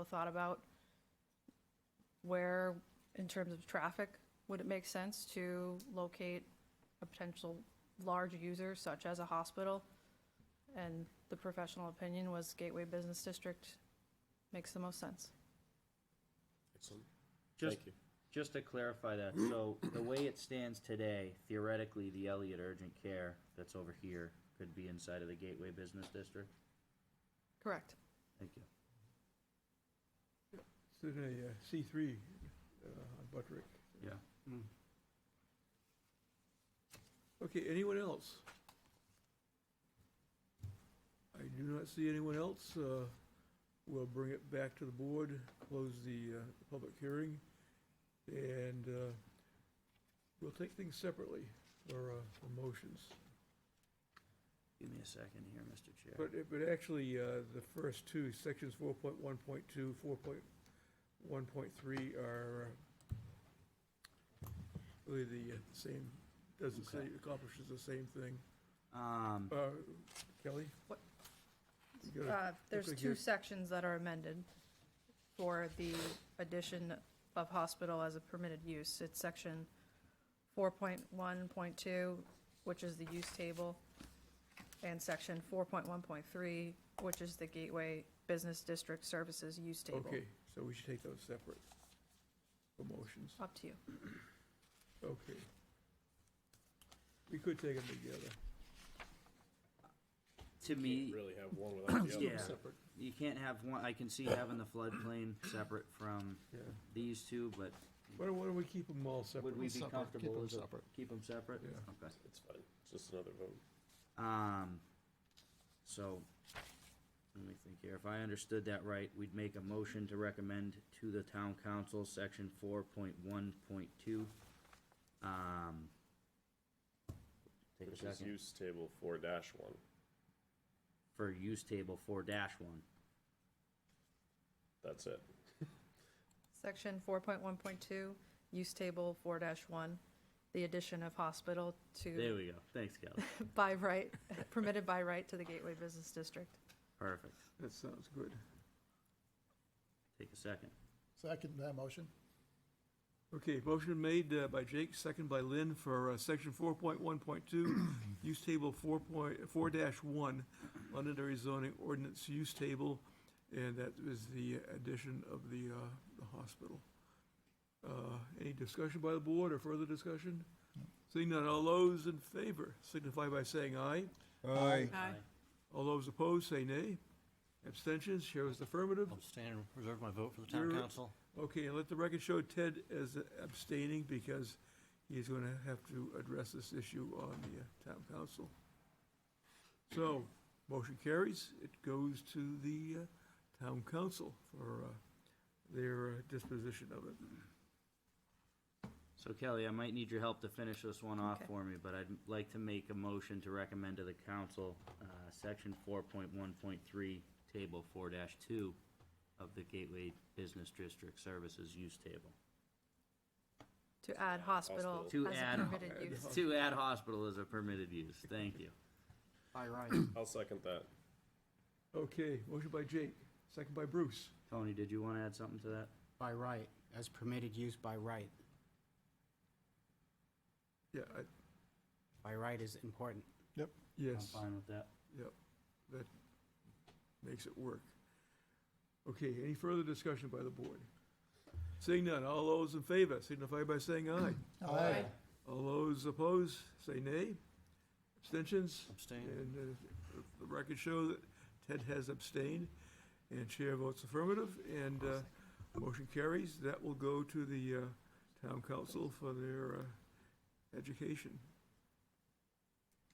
thought about where, in terms of traffic, would it make sense to locate a potential large user such as a hospital? And the professional opinion was Gateway Business District makes the most sense. Excellent. Just, Thank you. just to clarify that, so the way it stands today, theoretically, the Elliott Urgent Care that's over here could be inside of the Gateway Business District? Correct. Thank you. It's a uh, C3 uh, on Buttrick. Yeah. Okay, anyone else? I do not see anyone else. Uh, We'll bring it back to the board, close the uh, public hearing, and uh, we'll take things separately for uh, for motions. Give me a second here, Mr. Chair. But, but actually, uh, the first two, sections 4.1.2, 4.1.3 are uh, really the uh, same, does the Okay. same, accomplishes the same thing. Um, Uh, Kelly? What? You gotta- Uh, There's like two you're- sections that are amended for the addition of hospital as a permitted use. It's section 4.1.2, which is the use table, and section 4.1.3, which is the Gateway Business District Services Use Table. Okay, so we should take those separate for motions, Up to you. okay. We could take them together. to me, Can't really have one without the other. Yeah. Separate, you can't have one, I can see having the floodplain separate from yeah. these two, but Why don't, why don't we keep them all separate? would we be separate, keep comfortable them as a, separate. keep them separate? Yeah. Okay. It's fine. It's just another vote. Um, so, let me think here, if I understood that right, we'd make a motion to recommend to the town council, section four point one point two. Um. Take Which a is second, use table four dash one. for use table four dash one, That's it. Section 4.1.2, Use Table 4-1, the addition of hospital there to, we go, thanks, Kelly, by right, permitted by right to the Gateway Business District. perfect, That sounds good. take a second, Second that motion. Okay, motion made uh, by Jake, second by Lynn for uh, section four point one point two, use table four point, four dash one, Londonderry zoning ordinance use table, and that is the addition of the, uh, the hospital. Uh, Any discussion by the board or further discussion? Seeing none, all those in favor signify by saying aye. Aye. Aye. All those opposed, say nay. Abstentions, chair is affirmative. I'll abstain and reserve my vote for the town You're- council. Okay, and let the record show Ted is abstaining because he's going to have to address this issue on the uh, town council. So, motion carries. It goes to the uh, town council for uh, their uh, disposition of it. So Kelly, I might need your help to finish this one off Okay. for me, but I'd like to make a motion to recommend to the council, uh, section four point one point three, table four two of the Gateway Business District Services Use Table. To add hospital hospital. as To a add- permitted Add use. hos- To add hospital as a permitted use, thank you. Aye, right. I'll second that. Okay, motion by Jake, second by Bruce. Tony, did you wanna add something to that? By right, as permitted use by right. Yeah, I- By right is important. yes, I'm fine with that. that makes it work. Okay, any further discussion by the board? Seeing none, all those in favor signify by saying aye. Aye. All those opposed, say nay. Abstentions? Abstain. And uh, the record show that Ted has abstained, and chair votes affirmative, and uh, motion carries. That will go to the uh, town council for their uh, education.